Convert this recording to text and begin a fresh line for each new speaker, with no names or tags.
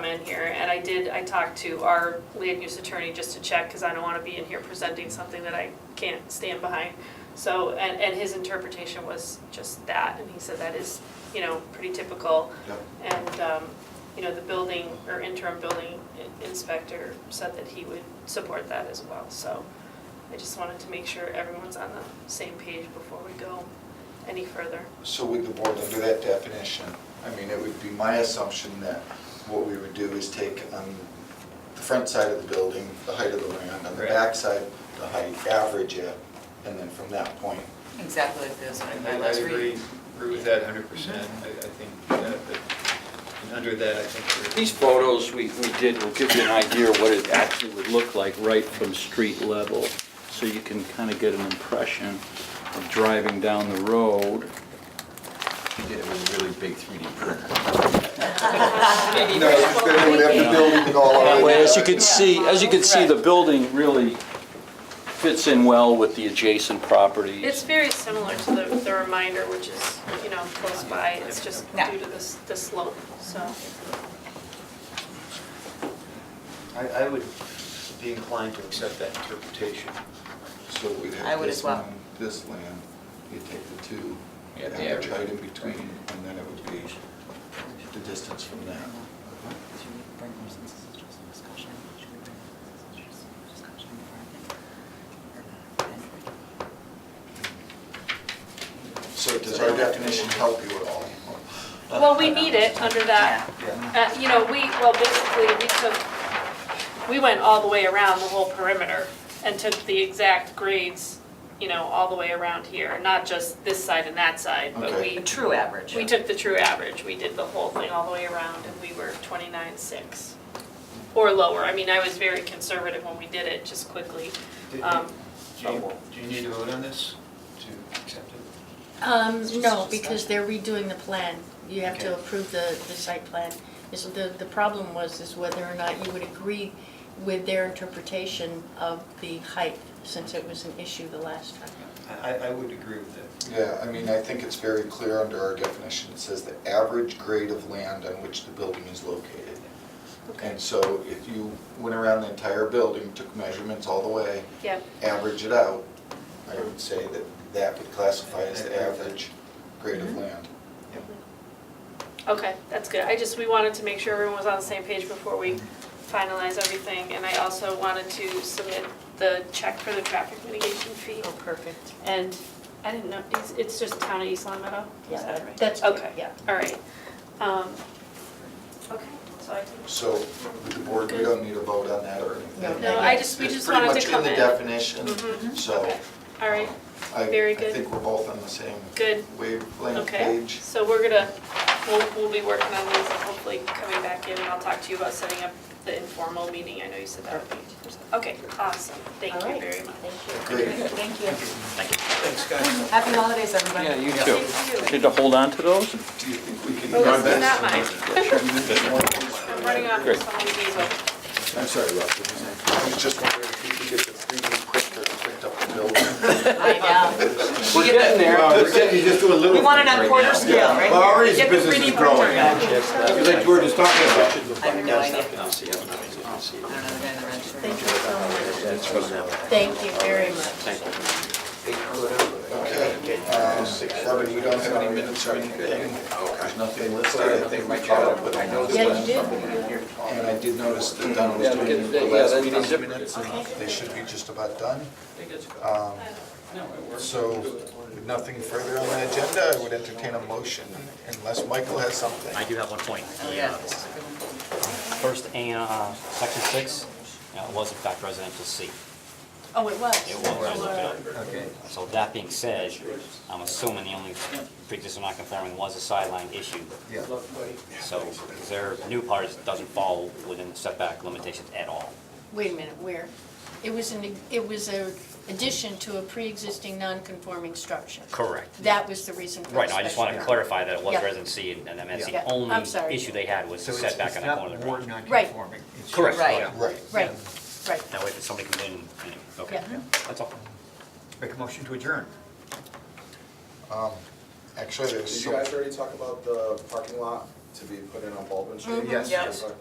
plan here, and I did, I talked to our land use attorney just to check, because I don't want to be in here presenting something that I can't stand behind. So, and, and his interpretation was just that, and he said that is, you know, pretty typical.
Yep.
And, um, you know, the building, or interim building in- inspector said that he would support that as well, so I just wanted to make sure everyone's on the same page before we go any further.
So would the board, under that definition, I mean, it would be my assumption that what we would do is take on the front side of the building, the height of the land, on the
Right.
back side, the height, average it, and then from that point.
Exactly like this, like
I
my
I
last
agree,
read.
agree with that hundred percent. I, I think that, but, and under that, I think we're.
These photos we we did will give you an idea of what it actually would look like right from street level, so you can kind of get an impression of driving down the road.
He did it with a really big 3D printer.
No, because then they would have the building and all
That
of
way,
it.
as you can see, as you can see, the building really fits in well with the adjacent properties.
It's very similar to the, the reminder, which is, you know, close by, it's just
Yeah.
due to this, the slope, so.
I, I would be inclined to accept that interpretation.
So we'd
I
have
would
this
as well.
one, this land, you take the two,
Yeah, the
average
average.
height in between, and then it would be the distance from that. So does our definition help you at all?
Well, we need it under that, uh, you know, we, well, basically, we took, we went all the way around the whole perimeter and took the exact grades, you know, all the way around here, not just this side and that side, but
Okay.
we,
A true average.
we took the true average, we did the whole thing all the way around, and we were twenty-nine six. Or lower, I mean, I was very conservative when we did it, just quickly,
Do-
um.
Do you, do you need to vote on this to accept it?
Um,
It's just
no,
a
because they're redoing the plan. You have to
Okay.
approve the, the site plan. Is the, the problem was is whether or not you would agree with their interpretation of the height, since it was an issue the last time.
I, I- I would agree with that.
Yeah, I mean, I think it's very clear under our definition, it says the average grade of land on which the building is located.
Okay.
And so if you went around the entire building, took measurements all the way,
Yeah,
average it out, I would say that that would classify as the average grade
Mm-hmm.
of land.
okay, that's good. I just, we wanted to make sure everyone was on the same page before we finalize everything. And I also wanted to submit the check for the traffic mitigation fee.
Oh, perfect.
And I didn't know, it's, it's just town of East Long Meadow? Is
Yeah,
that
that-
right?
that's,
Okay,
yeah.
all right. Um, Okay, so I can,
So with the board, we don't need a vote on that or anything.
No,
I just- we
It's
just wanted to
Pretty much in the definition,
Mhm.
so
okay, all right,
I,
Very
I
good.
think we're both on the same
good,
wavelength
okay.
page.
So we're gonna, we'll, we'll be working on these and hopefully coming back in and I'll talk to you about setting up the informal meeting. I know you said that would be, okay, awesome. Thank
All
you
right.
very much.
Thank
Great.
Thank you.
Thanks, guys.
Happy holidays, everybody.
Yeah, you too.
Thank you.
Did to hold on to those?
Do you think we can?
Oh,
run
this is not mine.
that?
I'm running off of someone's easel.
I'm sorry, Rob. what was that? I was just wondering if you could get the 3D printer to print up the building.
I
We're getting there.
We're getting, you just do a
know.
little.
We want it on quarter scale, right?
Well, already the
Get the
business is
3D printer
growing.
going.
Because like George was talking about.
I have no idea. I don't know the guy in the red shirt.
Thank you so much. Thank you very much.
Okay. um, Robin, we don't have any minutes or anything. There's nothing listed. I think we caught up with
Yeah,
them.
you did.
And I did notice that Don was
Yeah, we
doing
can-
the
yeah,
last
that's-
meeting's
that's-
minutes.
Okay.
They should be just about done. Um, So, with nothing further on the agenda, I would entertain a motion unless Michael has something.
I do have one point.
Oh, yeah, this is a good one.
First, A, uh, section six, uh, was in fact residential C.
Oh, it was.
It was, I looked it up.
Okay.
So that being said, I'm assuming the only pre-existing non-conforming was a sideline issue.
Yeah.
So their new part is- doesn't fall within setback limitations at all.
Wait a minute, where? It was an, it was a addition to a pre-existing non-conforming structure.
Correct.
That was the reason for the
Right, no, I just wanted to
special permit.
clarify that it was
Yeah.
residency, and and that's
Yeah.
the
Yeah, I'm sorry.
only issue they had was
So
the
it's,
setback
it's
on the corner
not
of the
more
garage.
non-conforming. It's just
Correct.
like-
Right.
Right.
Right, right.
That way, if somebody comes in, you know, okay,
Yeah.
that's all.
Make a motion to adjourn.
Um, Actually, there's
Did
some.
you guys already talk about the parking lot to be put in on Baldwin Street?
Yes.
Yes.
Okay.